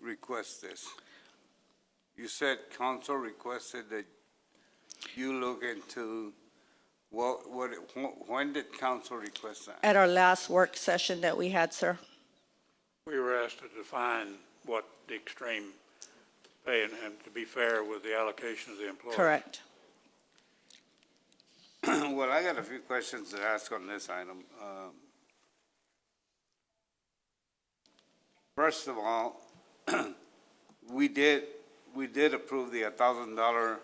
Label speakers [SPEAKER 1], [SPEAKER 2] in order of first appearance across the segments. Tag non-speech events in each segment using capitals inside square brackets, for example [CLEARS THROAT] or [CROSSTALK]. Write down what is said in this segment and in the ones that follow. [SPEAKER 1] request this? You said council requested that you look into, what, what, wh- when did council request that?
[SPEAKER 2] At our last work session that we had, sir,
[SPEAKER 3] We were asked to define what the extreme pay and, and to be fair with the allocation of the employees.
[SPEAKER 2] correct.
[SPEAKER 1] [CLEARS THROAT] Well, I got a few questions to ask on this item. Um, First of all, [CLEARS THROAT] we did, we did approve the thousand dollar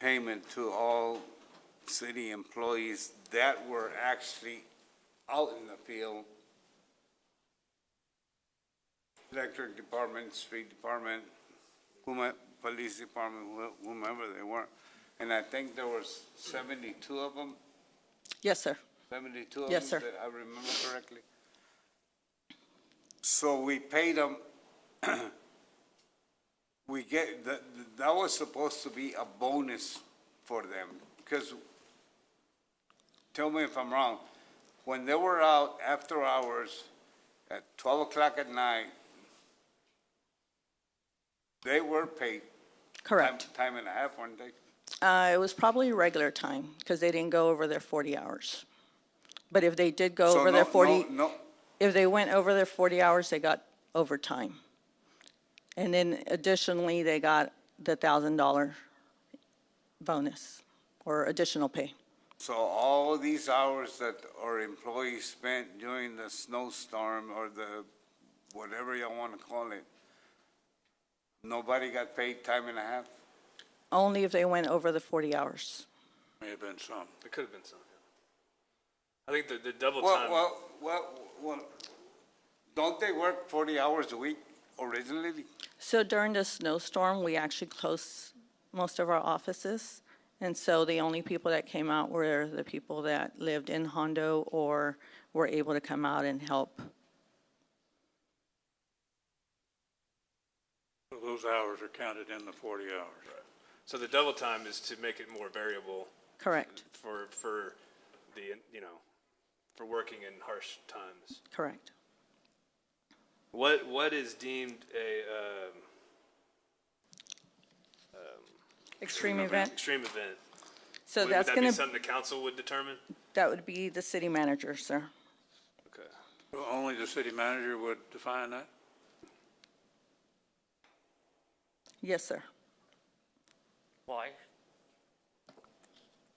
[SPEAKER 1] payment to all city employees that were actually out in the field. Electric department, street department, whomever, police department, wh- whomever they were. And I think there was seventy-two of them,
[SPEAKER 2] Yes, sir.
[SPEAKER 1] seventy-two of them.
[SPEAKER 2] Yes, sir.
[SPEAKER 1] If I remember correctly. So we paid them, [CLEARS THROAT] we get, that, that was supposed to be a bonus for them, because, tell me if I'm wrong, when they were out after hours at twelve o'clock at night, they were paid time,
[SPEAKER 2] Correct.
[SPEAKER 1] time and a half, weren't they?
[SPEAKER 2] Uh, it was probably regular time because they didn't go over their 40 hours. But if they did go
[SPEAKER 1] So
[SPEAKER 2] over
[SPEAKER 1] no-
[SPEAKER 2] their
[SPEAKER 1] no-
[SPEAKER 2] 40,
[SPEAKER 1] No,
[SPEAKER 2] if they went over their 40 hours, they got overtime. And then additionally, they got the $1,000 bonus or additional pay.
[SPEAKER 1] so all these hours that our employees spent during the snowstorm or the, whatever you wanna call it, nobody got paid time and a half?
[SPEAKER 2] Only if they went over the 40 hours.
[SPEAKER 3] May have been some.
[SPEAKER 4] There could have been some. yeah. I think the, the double
[SPEAKER 1] Well,
[SPEAKER 4] time.
[SPEAKER 1] well, well, well, don't they work forty hours a week originally?
[SPEAKER 2] So during the snowstorm, we actually closed most of our offices. And so the only people that came out were the people that lived in Hondo or were able to come out and help.
[SPEAKER 3] So Those hours are counted in the forty hours.
[SPEAKER 4] so the double time is to make it more variable
[SPEAKER 2] Correct,
[SPEAKER 4] for for the you know for working in harsh times.
[SPEAKER 2] correct.
[SPEAKER 4] What what is deemed a um,
[SPEAKER 2] Extreme event.
[SPEAKER 4] Extreme event.
[SPEAKER 2] So
[SPEAKER 4] would,
[SPEAKER 2] that's
[SPEAKER 4] would that
[SPEAKER 2] going
[SPEAKER 4] be
[SPEAKER 2] to,
[SPEAKER 4] something the council would determine?
[SPEAKER 2] that would be the city manager, sir.
[SPEAKER 4] Okay.
[SPEAKER 3] So Only the city manager would define that?
[SPEAKER 2] Yes, sir.
[SPEAKER 5] Why?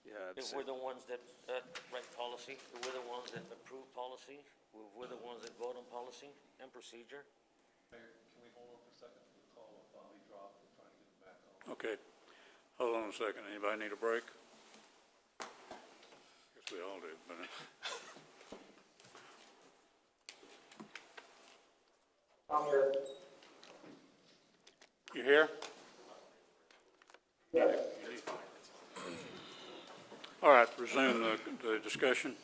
[SPEAKER 4] Yeah. I'd
[SPEAKER 5] If
[SPEAKER 4] say-
[SPEAKER 5] we're the ones that, uh, write policy, if we're the ones that approve policy, if we're the ones that vote on policy and procedure.
[SPEAKER 3] Okay. Hold on a second. Anybody need a break? Guess we all do, but. uh,
[SPEAKER 6] I'm here.
[SPEAKER 3] You here?
[SPEAKER 6] Yes.
[SPEAKER 3] All right, resume the, the discussion.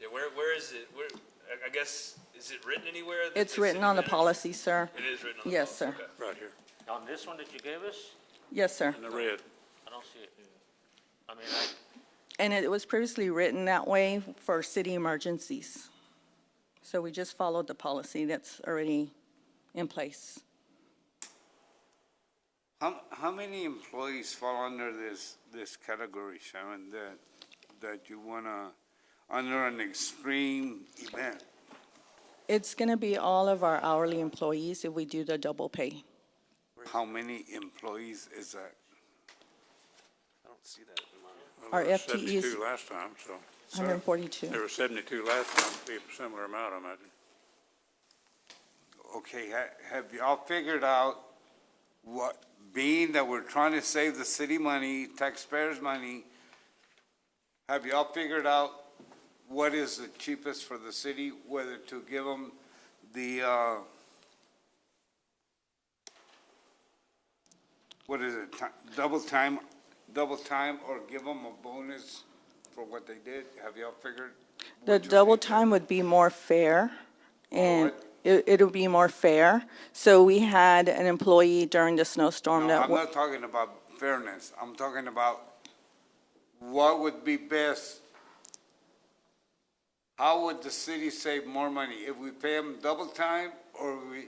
[SPEAKER 4] yeah. Where where is it? Where I, I guess is it written anywhere? that
[SPEAKER 2] It's
[SPEAKER 4] the
[SPEAKER 2] written
[SPEAKER 4] city
[SPEAKER 2] on the
[SPEAKER 4] manager-
[SPEAKER 2] policy, sir.
[SPEAKER 4] It is written on.
[SPEAKER 2] Yes,
[SPEAKER 4] the
[SPEAKER 2] sir.
[SPEAKER 4] policy. Okay.
[SPEAKER 3] Right here,
[SPEAKER 5] On this one that you gave us,
[SPEAKER 2] Yes, sir.
[SPEAKER 3] in the red.
[SPEAKER 5] I don't see it. I mean, I,
[SPEAKER 2] And it was previously written that way for city emergencies. So we just followed the policy that's already in place.
[SPEAKER 1] How, how many employees fall under this, this category, Sharon, that, that you wanna, under an extreme event?
[SPEAKER 2] It's going to be all of our hourly employees if we do the double pay.
[SPEAKER 1] How many employees is that?
[SPEAKER 4] I don't see that in mine.
[SPEAKER 3] Well,
[SPEAKER 2] Our
[SPEAKER 3] there was
[SPEAKER 2] FTEs
[SPEAKER 3] Seventy-two last time, so.
[SPEAKER 2] 142.
[SPEAKER 3] There were seventy-two last time, be a similar amount, I imagine.
[SPEAKER 1] Okay, ha- have y'all figured out what, being that we're trying to save the city money, taxpayers' money, have y'all figured out what is the cheapest for the city, whether to give them the, uh, what is it, ti- double time, double time, or give them a bonus for what they did? Have y'all figured?
[SPEAKER 2] The
[SPEAKER 1] what you
[SPEAKER 2] double
[SPEAKER 1] think?
[SPEAKER 2] time would be more fair, and
[SPEAKER 1] Alright.
[SPEAKER 2] it, it'll be more fair. So we had an employee during the snowstorm
[SPEAKER 1] No,
[SPEAKER 2] that,
[SPEAKER 1] I'm
[SPEAKER 2] wa-
[SPEAKER 1] not talking about fairness. I'm talking about what would be best. How would the city save more money? If we pay them double time or we,